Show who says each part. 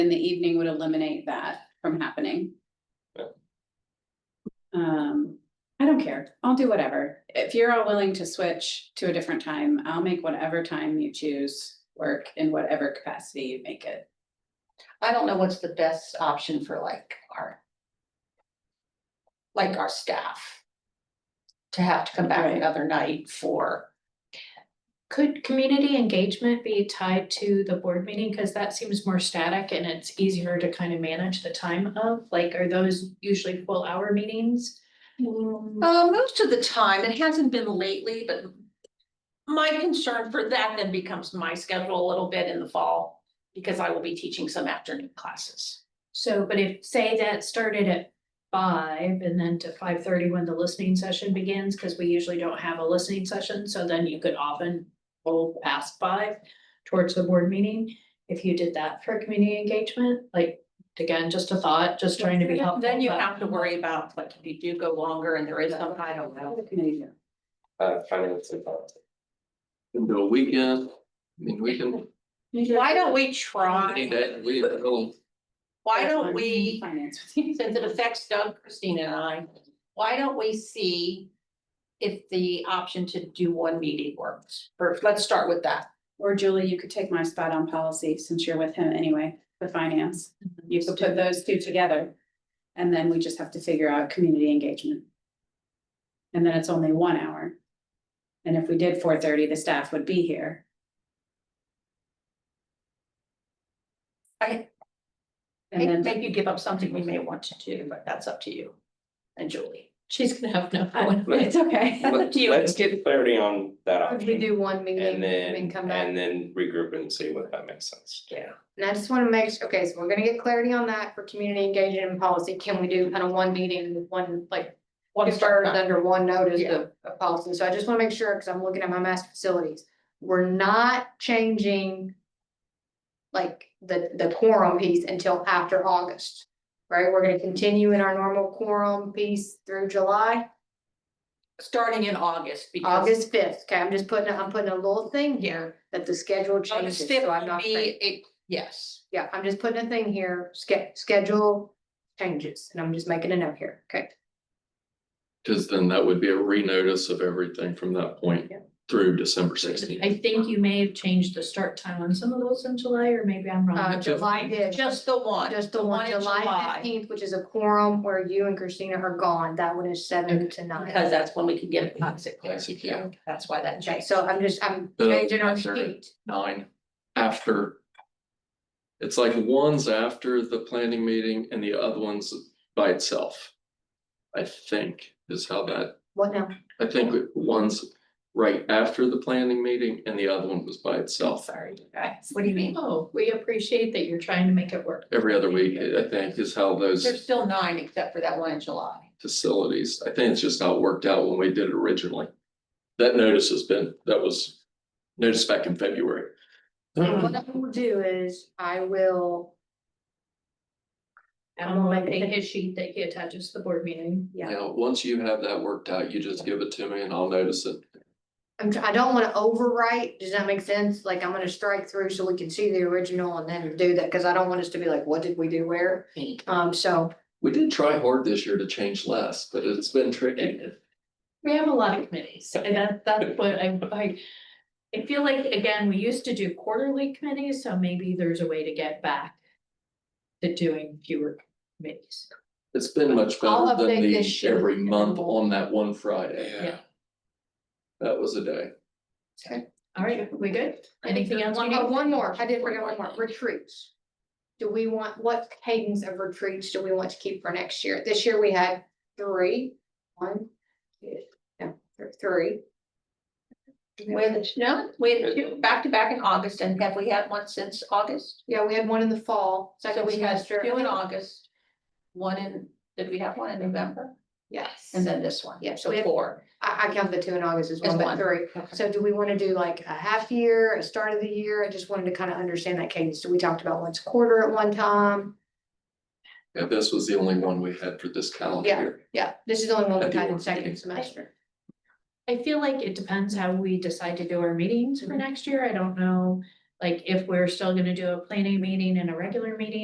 Speaker 1: in the evening would eliminate that from happening.
Speaker 2: Yeah.
Speaker 1: Um, I don't care. I'll do whatever. If you're all willing to switch to a different time, I'll make whatever time you choose work in whatever capacity you make it.
Speaker 3: I don't know what's the best option for like our. Like our staff. To have to come back
Speaker 1: Right.
Speaker 3: another night for,
Speaker 4: Could community engagement be tied to the board meeting? Cause that seems more static and it's easier to kind of manage the time of, like, are those usually full hour meetings? Mm.
Speaker 3: uh, most of the time, it hasn't been lately, but. My concern for that then becomes my schedule a little bit in the fall, because I will be teaching some afternoon classes.
Speaker 4: So, but if, say that started at five and then to five thirty when the listening session begins, cause we usually don't have a listening session, so then you could often go past five towards the board meeting, if you did that for community engagement, like, again, just a thought, just trying to be helpful.
Speaker 3: Then you
Speaker 4: but-
Speaker 3: have to worry about, like, if you do go longer and there is some, I don't know.
Speaker 1: What can I do?
Speaker 2: uh, finance and policy.
Speaker 5: Can do a weekend, I mean, we can,
Speaker 3: Why don't we
Speaker 5: any
Speaker 3: try,
Speaker 5: day, we, we'll-
Speaker 3: why don't we?
Speaker 1: Finance with you.
Speaker 3: since it affects Doug, Christina and I, why don't we see if the option to do one meeting works? Or let's start with that.
Speaker 1: Or Julie, you could take my spot on policy since you're with him anyway, the finance.
Speaker 3: Mm-hmm.
Speaker 1: You could put those two together. And then we just have to figure out community engagement. And then it's only one hour. And if we did four thirty, the staff would be here.
Speaker 3: I-
Speaker 1: And then.
Speaker 3: Maybe you give up something we may want to do, but that's up to you and Julie.
Speaker 4: She's gonna have no.
Speaker 1: I- It's okay.
Speaker 3: up to you.
Speaker 2: Let's get clarity on that
Speaker 6: Would we
Speaker 2: option
Speaker 6: do one
Speaker 2: and
Speaker 6: meeting
Speaker 2: then,
Speaker 6: and come back?
Speaker 2: and then regroup and see what that makes sense.
Speaker 3: Yeah.
Speaker 6: And I just wanna make, su- okay, so we're gonna get clarity on that for community engagement and policy. Can we do kind of one meeting, with one, like,
Speaker 3: One
Speaker 6: if birds
Speaker 3: start,
Speaker 6: under one notice
Speaker 3: Yeah.
Speaker 6: of, of policy? So I just wanna make sure, cause I'm looking at my master facilities. We're not changing like the, the quorum piece until after August, right? We're gonna continue in our normal quorum piece through July,
Speaker 3: starting in August because
Speaker 6: August fifth. Okay, I'm just putting, a- I'm putting a little thing here that the schedule
Speaker 3: August
Speaker 6: changes,
Speaker 3: fifth
Speaker 6: so I'm
Speaker 3: would
Speaker 6: not.
Speaker 3: be
Speaker 6: saying-
Speaker 3: a, yes.
Speaker 6: Yeah, I'm just putting a thing here, ske- schedule changes, and I'm just making a note here, okay?
Speaker 5: cause then that would be a renotice of everything from that point
Speaker 6: Yeah.
Speaker 5: through December sixteenth.
Speaker 4: I think you may have changed the start time on some of those in July, or maybe I'm
Speaker 6: Uh,
Speaker 4: wrong.
Speaker 6: July did,
Speaker 3: Just the one.
Speaker 6: just the one,
Speaker 3: in
Speaker 6: July fifteenth, which is a quorum where you and Christina are gone, that one is seven to nine.
Speaker 3: Because that's when we can get toxic clear.
Speaker 5: Toxic, yeah.
Speaker 3: That's why that
Speaker 6: Okay,
Speaker 3: changed.
Speaker 6: so I'm just, I'm
Speaker 5: Uh,
Speaker 6: changing our
Speaker 5: sorry.
Speaker 6: sheet,
Speaker 5: Nine, after. It's like one's after the planning meeting and the other one's by itself. I think is how that,
Speaker 6: what now?
Speaker 5: I think one's right after the planning meeting and the other one was by itself.
Speaker 3: Sorry, guys. What do you mean?
Speaker 4: Oh, we appreciate that you're trying to make it work.
Speaker 5: Every other week, I think, is how those.
Speaker 3: There's still nine except for that one in July.
Speaker 5: facilities. I think it's just not worked out when we did it originally. That notice has been, that was noticed back in February.
Speaker 6: And What I will do is, I will,
Speaker 4: I'm making his sheet that he attaches to the board meeting.
Speaker 6: Yeah.
Speaker 5: You know, once you have that worked out, you just give it to me and I'll notice it.
Speaker 6: I'm, tr- I don't wanna overwrite, does that make sense? Like, I'm gonna strike through so we can see the original and then do that, cause I don't want us to be like, what did we do where? Um, so
Speaker 5: We did try hard this year to change less, but it's been tricky.
Speaker 4: We have a lot of committees, and that, that's what I, I. I feel like, again, we used to do quarterly committees, so maybe there's a way to get back. To doing fewer committees.
Speaker 5: It's been much
Speaker 6: I'll
Speaker 5: better than
Speaker 6: update
Speaker 5: the
Speaker 6: this year.
Speaker 5: every month on that one Friday.
Speaker 4: Yeah.
Speaker 5: That was a day.
Speaker 4: All right, we good? Anything else? we
Speaker 6: Oh,
Speaker 4: need?
Speaker 6: one more, I did forget one more, retreats. Do we want, what cadence of retreats do we want to keep for next year? This year we had three, one, two, no, th- three.
Speaker 3: With, no, we had two back to back in August, and have we had one since August?
Speaker 6: Yeah, we had one in the fall,
Speaker 3: So
Speaker 6: second
Speaker 3: we had
Speaker 6: semester.
Speaker 3: two in August. One in, did we have one in November?
Speaker 6: Yes,
Speaker 3: And then this one,
Speaker 6: Yeah,
Speaker 3: yeah,
Speaker 6: we
Speaker 3: so
Speaker 6: have-
Speaker 3: four.
Speaker 6: I, I count the two in August as
Speaker 3: As
Speaker 6: one, but
Speaker 3: one.
Speaker 6: three. So do we want to do like a half year, a start of the year? I just wanted to kind of understand that cadence. So we talked about once a quarter at one time.
Speaker 5: Yeah, this was the only one we had for this calendar
Speaker 6: Yeah.
Speaker 5: year.
Speaker 6: Yeah, this is the only one
Speaker 5: I
Speaker 6: we
Speaker 5: do
Speaker 6: had in
Speaker 5: want to
Speaker 6: second
Speaker 5: do-
Speaker 6: semester.
Speaker 4: I feel like it depends how we decide to do our meetings for next year. I don't know, like if we're still gonna do a planning meeting and a regular meeting.